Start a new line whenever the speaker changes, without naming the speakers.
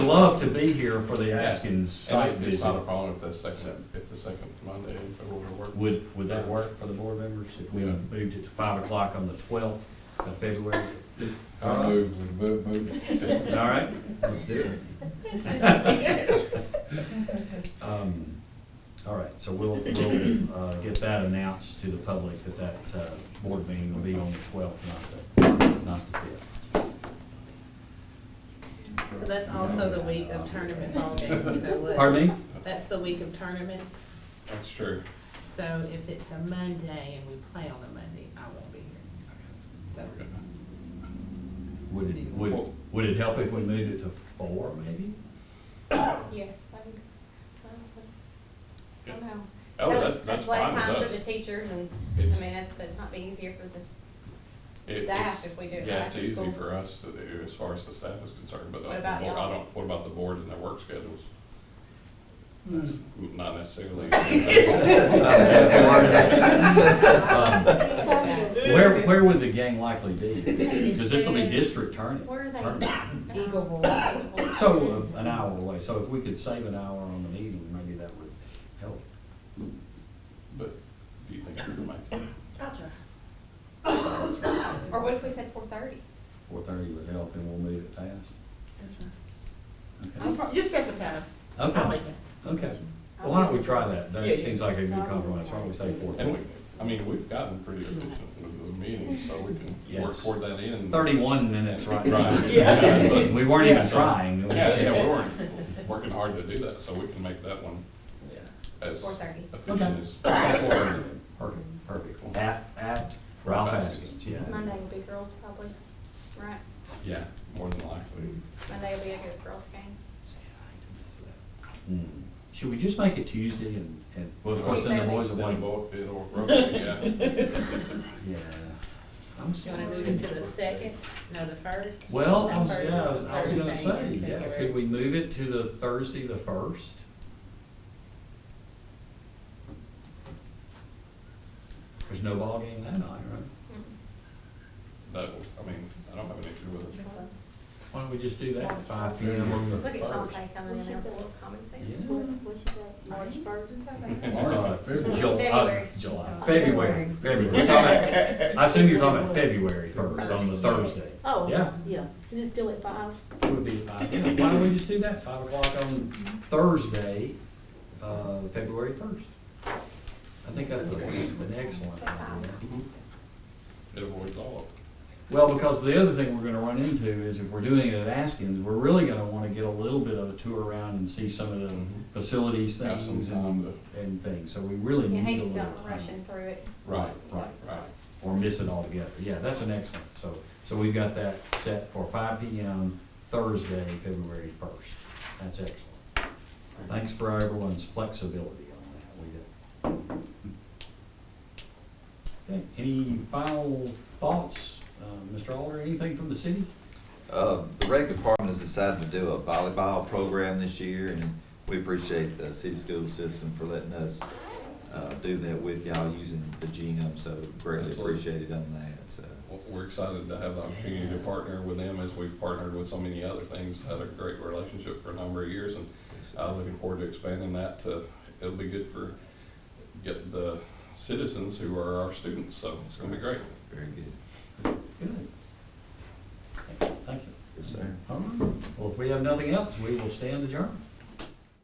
love to be here for the Askins
And
site
it- it's not a
visit.
problem if the second, if the second Monday in February will work.
Would, would that work for the board members if we
Yeah.
moved it to five o'clock on the twelfth of February?
I move, move, move.
All right, let's do it. Um, All right, so we'll, we'll uh, get that announced to the public that that uh, board meeting will be on the twelfth, not the, not the fifth.
So that's also the week of tournament holidays, so look.
Pardon me?
That's the week of tournaments,
That's true.
so if it's a Monday and we play on a Monday, I won't be here. So,
Would it, would, would it help if we moved it to four, maybe?
Yes, I think, I don't know.
Oh,
That-
that, that's
less
fine
time for
with
the
us.
teachers and, I
It's-
mean, that- that'd not be easier for the
It- it's-
staff if we do it
Yeah, it's
after
easy
school.
for us to do as far as the staff is concerned, but
What
I
about
I
y'all?
don't, what about the board and their work schedules? That's Not necessarily. That's
Um, Where, where would the gang likely be? Because this will be district tournament.
Where are they?
tournament.
Eagle Bowl.
Uh-huh. Bowl.
So uh, an hour away, so if we could save an hour on the meeting, maybe that would help.
But do you think we can make it?
Or what if we said four thirty?
Four thirty would help and we'll move it fast. Okay.
You set the time. I'll make
Okay,
it.
okay. Well, why don't we try that?
Yeah.
That seems like a good compromise. Why don't we say four
And we,
thirty?
I mean, we've gotten pretty efficient with the meetings, so we can work
Yes.
toward that end.
Thirty-one minutes right now.
Right.
Yeah.
but-
We weren't even
Yeah.
trying.
Yeah, yeah, we weren't working hard to do that, so we can make that one as
Four thirty.
efficient as.
Perfect, perfect. At, at Ralph Askins,
This
yeah.
Monday will be girls probably, right?
Yeah, more than likely.
Monday will be a good girls game.
Hmm. Should we just make it Tuesday and, and, well, of course, then the boys will
Then
want,
we'll- It'll, rotate, yeah.
yeah. I'm
you wanna move
sorry.
it to the second, no, the first?
Well, I
The
was,
first
yeah, I was,
on
I was gonna
Thursday
say,
in
yeah,
February.
could we move it to the Thursday, the first? There's no ball game that night, right?
Mm-hmm.
That, will- I mean, I don't have an issue with it.
Why don't we just do that at five P M on the
Look at
first?
Shantae coming in there with a little common sense.
Yeah.
March first.
Uh, Jul- uh,
February.
July, February, February, we're talking about, I assume you're talking about February first, on the Thursday.
Oh,
Yeah.
yeah. Is it still at five?
It would be five, yeah, why don't we just do that, five o'clock on Thursday, uh, February first? I think that's a- an excellent idea.
It avoids all of it.
Well, because the other thing we're gonna run into is if we're doing it at Askins, we're really gonna wanna get a little bit of a tour around and see some of the facilities,
Mm-hmm. Have some
things
time
and,
to,
and things, so we really
You
need
hate
a
to
little
go
time.
rushing through it.
right,
Right,
right.
or miss it altogether. Yeah, that's an excellent, so, so we've got that set for five P M Thursday, February first. That's excellent. Thanks for everyone's flexibility on that, we do. Okay, any final thoughts, uh, Mr. Alder, anything from the city?
Uh, The rec department has decided to do a volleyball program this year, and we appreciate the city school system for letting us uh, do that with y'all using the genome, so greatly
Absolutely.
appreciated on that, so.
Well, We're excited to have the opportunity to partner with them as we've partnered with so many other things. Had a great relationship for a number of years and I'm looking forward to expanding that to, it'll be good for, get the citizens who are our students, so it's gonna be great.
Very good.
Good. Thank you.
Yes, sir.
All right, well, if we have nothing else, we will stand adjourned.